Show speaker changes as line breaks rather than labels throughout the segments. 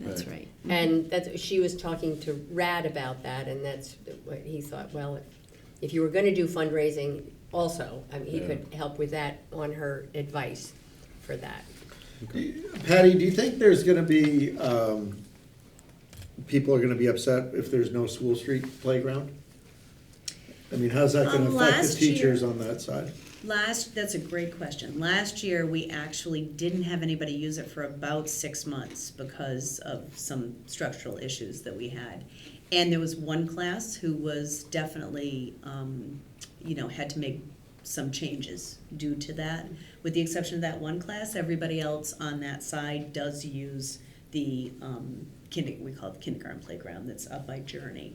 That's right.
And that's, she was talking to Rad about that, and that's what he thought, well, if you were gonna do fundraising also, I mean, he could help with that on her advice for that.
Patty, do you think there's gonna be, um, people are gonna be upset if there's no school street playground? I mean, how's that gonna
Um,
affect the
last year-
teachers on that side?
Last, that's a great question. Last year, we actually didn't have anybody use it for about six months because of some structural issues that we had. And there was one class who was definitely, um, you know, had to make some changes due to that. With the exception of that one class, everybody else on that side does use the um, kinder, we call it kindergarten playground that's up by Journey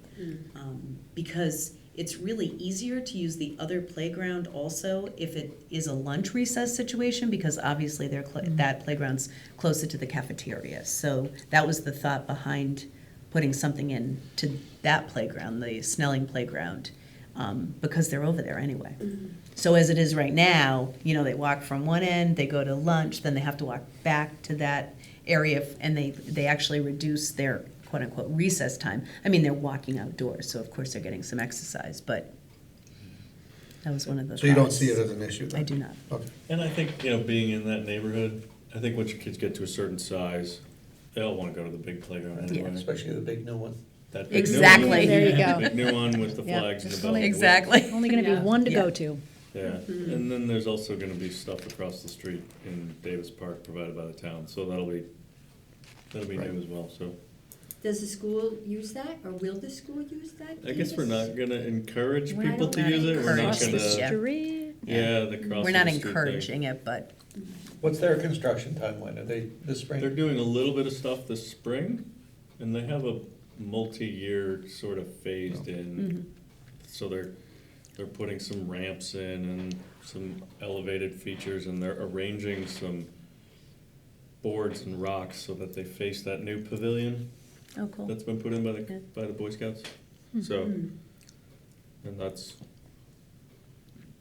um, because it's really easier to use the other playground also if it is a lunch recess situation because obviously they're cl- that playground's closer to the cafeteria. So that was the thought behind putting something in to that playground, the Snelling playground, um, because they're over there anyway. So as it is right now, you know, they walk from one end, they go to lunch, then they have to walk back to that area, f- and they, they actually reduce their quote-unquote recess time. I mean, they're walking outdoors, so of course they're getting some exercise, but that was one of the
So you don't
thoughts.
see it as an issue then?
I do not.
Okay.
And I think, you know, being in that neighborhood, I think once your kids get to a certain size, they'll wanna go to the big playground anyway.
Especially the big new one.
That big new
Exactly.
one.
There
you go.
Big new one with the
Yeah.
flags and the
Only-
bells.
Exactly.
Only gonna be
Yeah.
one to
Yeah.
go to.
Yeah, and then there's also gonna be stuff across the street in Davis Park provided by the town, so that'll be, that'll be new as well, so.
Does the school use that, or will the school use that?
I guess we're not gonna encourage
We're not
people to
gonna
use it, we're not
Across the
Yeah.
gonna,
street.
yeah, the crossing the street thing.
We're not encouraging it, but
What's their construction timeline? Are they this
They're
spring?
doing a little bit of stuff this spring, and they have a multi-year sort of phased in. So they're, they're putting some ramps in and some elevated features, and they're arranging some boards and rocks so that they face that new pavilion
oh, cool.
that's been put in by
Yeah.
the, by the Boy Scouts. So,
Mm-hmm.
and that's,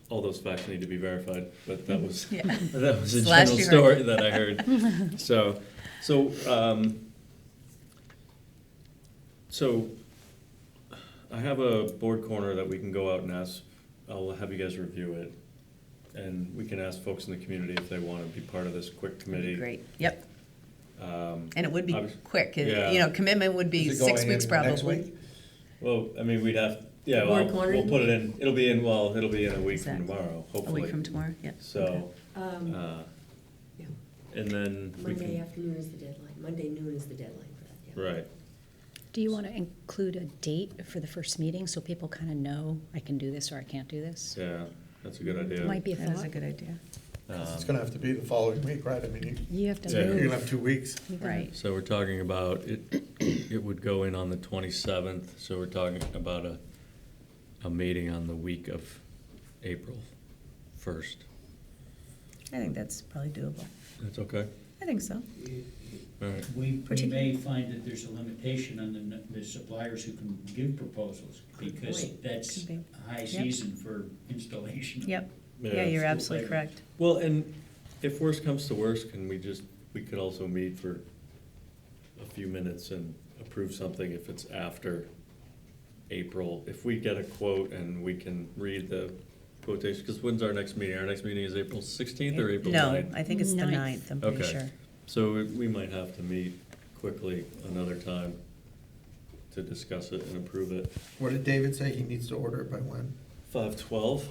all those facts need to be verified, but that was
Yeah.
that was a
It's last
general story that I heard. so, so, um, so I have a board corner that we can go out and ask. I'll have you guys review it, and we can ask folks in the community if they want to be part of this quick
That'd be
committee.
Great, yep.
Um,
And it would be
Obvious-
quick.
Yeah.
It- You know, commitment would be
Is it
six
going in
weeks
for next
probably.
week?
well, I mean, we'd have yeah. Well,
Board corner?
we'll put it in. It'll be in. Well, it'll be in a week
Exactly.
from tomorrow,
A
hopefully.
week from tomorrow, yeah. Okay.
So,
Um,
uh,
yeah.
and then we
Monday
can,
afternoon is the deadline, Monday noon is the deadline for that, yeah.
right.
Do you want to include a date for the first meeting so people kind of know I can do this or I can't do this?
Yeah, that's a good idea. Um,
Might be a
That is a
thought.
good idea.
'Cause It's gonna have to be the following week, right? I mean, you-
You have to
Yeah.
you're
move.
gonna have two weeks.
You gotta-
Right.
So we're talking about, it, it would go in on the twenty-seventh, so we're talking about a, a meeting on the week of April first.
I think that's probably doable.
That's okay?
I think so.
All right.
We, we
Particular-
may find that there's a limitation on the, n- the suppliers who can give proposals, because
point.
that's
Could be.
high
Yep.
season for installation. of
Yep. Yeah, you're absolutely correct.
Well, and if worse comes to worse, can we just, we could also meet for a few minutes and approve something if it's after April? If we get a quote and we can read the quotation, because when's our next meeting? Our next meeting is April sixteenth or April
No,
9th?
I think it's the
Ninth.
ninth, I'm pretty
Okay.
sure.
So we- we might have to meet quickly another time to discuss it and approve it.
What did David say? He needs to order it by when?
Five twelve?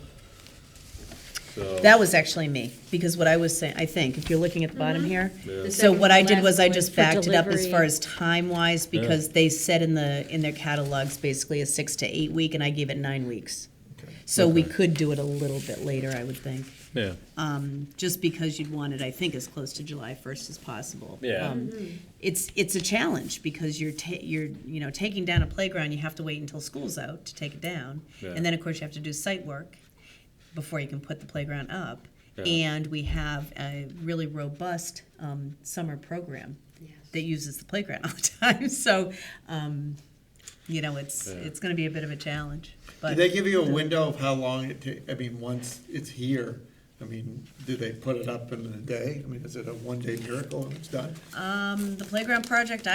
So.
That was actually me, because what I was saying, I think, if you're looking at the bottom here,
Yeah.
so what I did was I
Mm-hmm. Second
just
from last
backed it up as
delivery.
far as time-wise, because they said in the, in their catalogs, basically a six to eight week, and I gave it nine weeks.
Okay.
So we
Okay.
could do it a little bit later, I would think,
Yeah,
um, just because you'd want it, I think, as close to July first as possible.
Yeah.
Um, It's, it's a challenge, because you're ta- you're, you know, taking down a playground, you have to wait until school's out to take it down.
Yeah.
And then, of course, you have to do site work before you can put the playground up.
Yeah.
And we have a really robust um, summer program that uses the playground all the time. So, um, you know, it's
Yeah.
it's going to be a bit of a challenge.
Do
But
they give you a window of how long it ta, I mean, once it's here, I mean, do they put it up in a day? I mean, is it a one-day miracle and it's done?
um, the playground project, I